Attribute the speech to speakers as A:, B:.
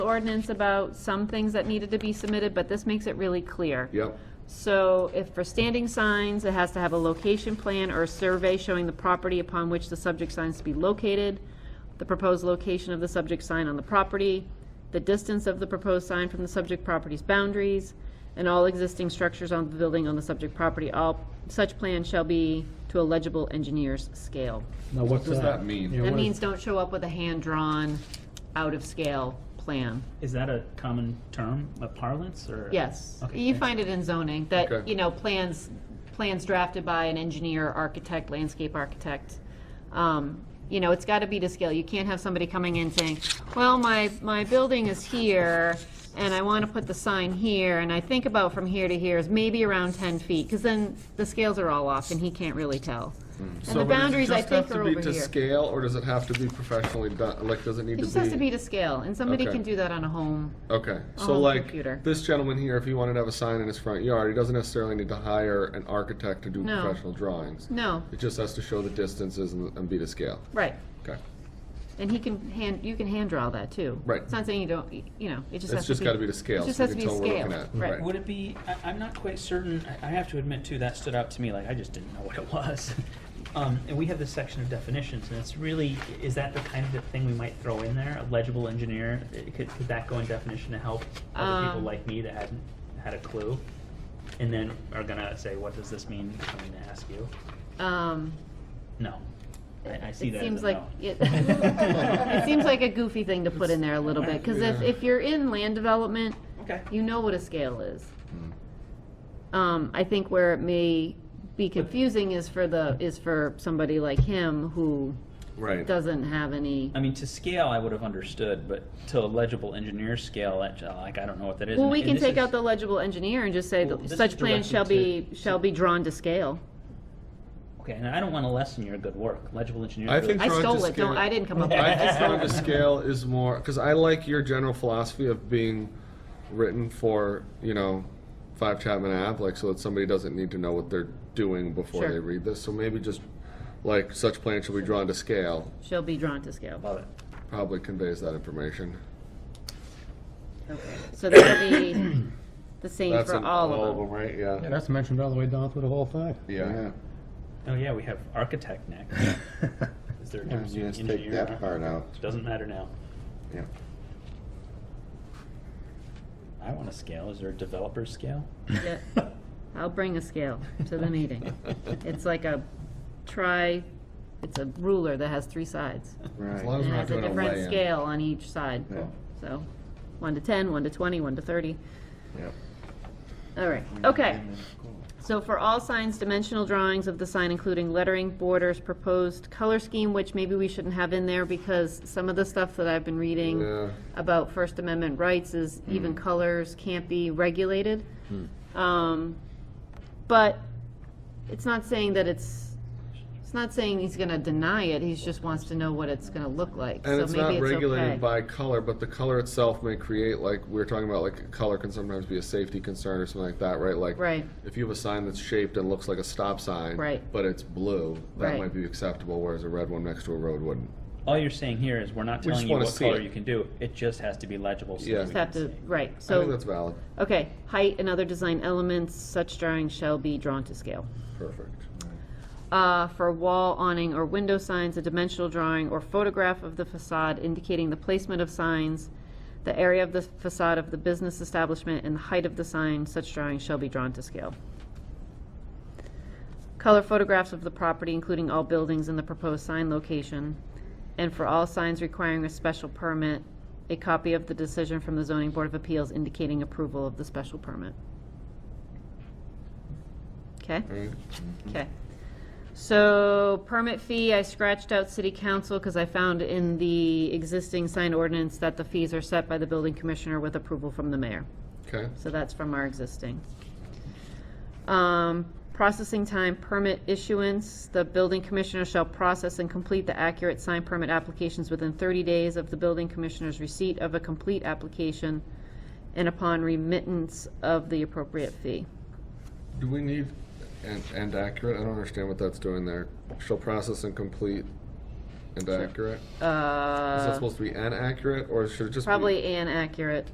A: ordinance about some things that needed to be submitted, but this makes it really clear.
B: Yep.
A: So if for standing signs, it has to have a location plan or a survey showing the property upon which the subject signs to be located, the proposed location of the subject sign on the property, the distance of the proposed sign from the subject property's boundaries, and all existing structures on the building on the subject property. All such plans shall be to a legible engineer's scale.
C: Now, what's that?
B: does that mean?
C: Yeah,
A: That
C: what is-
A: means don't show up with a hand-drawn, out-of-scale plan.
D: Is that a common term, a parlance, or?
A: Yes,
D: Okay,
A: you
D: thanks.
A: find it in zoning, that,
B: Okay.
A: you know, plans, plans drafted by an engineer, architect, landscape architect. Um, You know, it's gotta be to scale, you can't have somebody coming in saying, well, my, my building is here, and I wanna put the sign here, and I think about from here to here is maybe around ten feet, cause then the scales are all off and he can't really tell.
B: Hmm.
A: And the boundaries, I think, are over
B: Does it just have to be to
A: here.
B: scale, or does it have to be professionally done, like, does it need
A: It
B: to be?
A: just has to be to scale, and somebody
B: Okay.
A: can do that on a home.
B: Okay, so
A: on the
B: like,
A: computer.
B: this gentleman here, if he wanted to have a sign in his front yard, he doesn't necessarily need to hire an architect to do
A: No.
B: professional drawings.
A: No,
B: It just has to show the distances and and be to scale.
A: right.
B: Okay.
A: And he can hand, you can hand draw that too.
B: Right.
A: It's not saying you don't, you know, it just
B: It's
A: has to be.
B: just gotta be to scale,
A: It just
B: so we
A: has to
B: can
A: be
B: tell what we're looking
A: scaled,
B: at.
A: right.
D: Would it be, I, I'm not quite certain, I, I have to admit too, that stood out to me, like, I just didn't know what it was. Um, and we have this section of definitions, and it's really, is that the kind of thing we might throw in there, a legible engineer? It- Could, could that go in definition to help other people
A: Um.
D: like me that hadn't had a clue? And then are gonna say, what does this mean, I'm gonna ask you?
A: Um,
D: No. I, I see
A: it
D: that as
A: seems
D: a
A: like,
D: no.
A: it, it seems like a goofy thing to put in there a little bit, cause if,
B: Yeah.
A: if you're in land development,
D: Okay.
A: you know what a scale is.
B: Mm.
A: Um, I think where it may be confusing is for the, is for somebody like him who
B: Right.
A: doesn't have any.
D: I mean, to scale, I would have understood, but to a legible engineer scale, that, uh, like, I don't know what that is.
A: Well,
D: And-
A: we
D: and
A: can
D: this
A: take
D: is-
A: out the legible engineer and just say
D: Well,
A: that
D: this is
A: such plans shall be,
D: directed to-
A: shall be drawn to scale.
D: Okay, and I don't want to lessen your good work. Legible engineer.
B: I
D: really-
B: think
A: I
B: Drawn to
A: stole it, don't,
B: scale.
A: I didn't come up with it.
B: I just found the scale is more because I like your general philosophy of being written for you know five Chapman app, like so that somebody doesn't need to know what they're doing before
A: Sure.
B: they read this. So maybe just like such plan shall be drawn to scale
A: Shall be drawn to scale.
D: Love it.
B: probably conveys that information.
A: Okay, So that'll be the same
B: That's
A: for
B: in
A: all of them.
B: right? Yeah.
C: Yeah, that's mentioned all the way down through the whole thing.
B: Yeah.
D: Oh yeah, we have architect next. Is there a
E: Yeah,
D: difference
E: you
D: between
E: just take
D: engineer?
E: that
D: and
E: part out.
D: architect? Doesn't matter now.
E: Yeah.
D: I want a scale. Is there a developer scale?
A: Yeah. I'll bring a scale to the meeting. It's like a tri, it's a ruler that has three sides.
E: Right.
B: As long as
A: It
B: we're not
A: has Mm-hmm. a
B: doing a
A: different
B: lay-in.
A: scale on each side.
E: Yeah.
A: So, one to 10, one to 20, one to 30.
E: Yep.
A: All right, okay. So for all signs, dimensional drawings of the sign, including lettering, borders, proposed color scheme, which maybe we shouldn't have in there because some of the stuff that I've been
B: Yeah.
A: reading about First Amendment rights is
B: Hmm.
A: even colors can't be regulated. Um, But it's not saying that it's, it's not saying he's gonna deny it, he just wants to know what it's gonna look like.
B: And
A: So
B: it's
A: maybe
B: not regulated
A: okay.
B: by color, but the color itself may create, like, we were talking about, like, color can sometimes be a safety concern or something like that, right? Like,
A: Right.
B: if you have a sign that's shaped and looks like a stop sign,
A: Right.
B: but it's blue, that
A: Right.
B: might be acceptable, whereas a red one next to a road wouldn't.
D: All you're saying here is we're not
B: We just
D: telling you
B: wanna
D: what
B: see
D: color
B: it.
D: you can do. It just has to be legible. So
B: Yeah.
D: that we
B: Just
D: can
A: Have to,
D: see.
A: right,
B: I think
A: so,
B: that's valid.
A: okay, height and other design elements, such drawings shall be drawn to scale.
B: Perfect.
A: Uh, for wall, awning, or window signs, a dimensional drawing or photograph of the facade indicating the placement of signs, the area of the facade of the business establishment, and the height of the sign, such drawings shall be drawn to scale. Color photographs of the property, including all buildings and the proposed sign location, and for all signs requiring a special permit, a copy of the decision from the zoning board of appeals indicating approval of the special permit. Okay?
B: Alright.
A: Okay. So permit fee, I scratched out city council because I found in the existing sign ordinance that the fees are set by the building commissioner with approval from the mayor.
B: Okay.
A: So that's from our existing. Um, processing time, permit issuance, the building commissioner shall process and complete the accurate sign permit applications within thirty days of the building commissioner's receipt of a complete application and upon remittance of the appropriate fee.
B: Do we need, and, and accurate, I don't understand what that's doing there. Shall process and complete and accurate? Is that
A: Uh,
B: supposed to be an accurate, or should it just be?
A: probably inaccurate.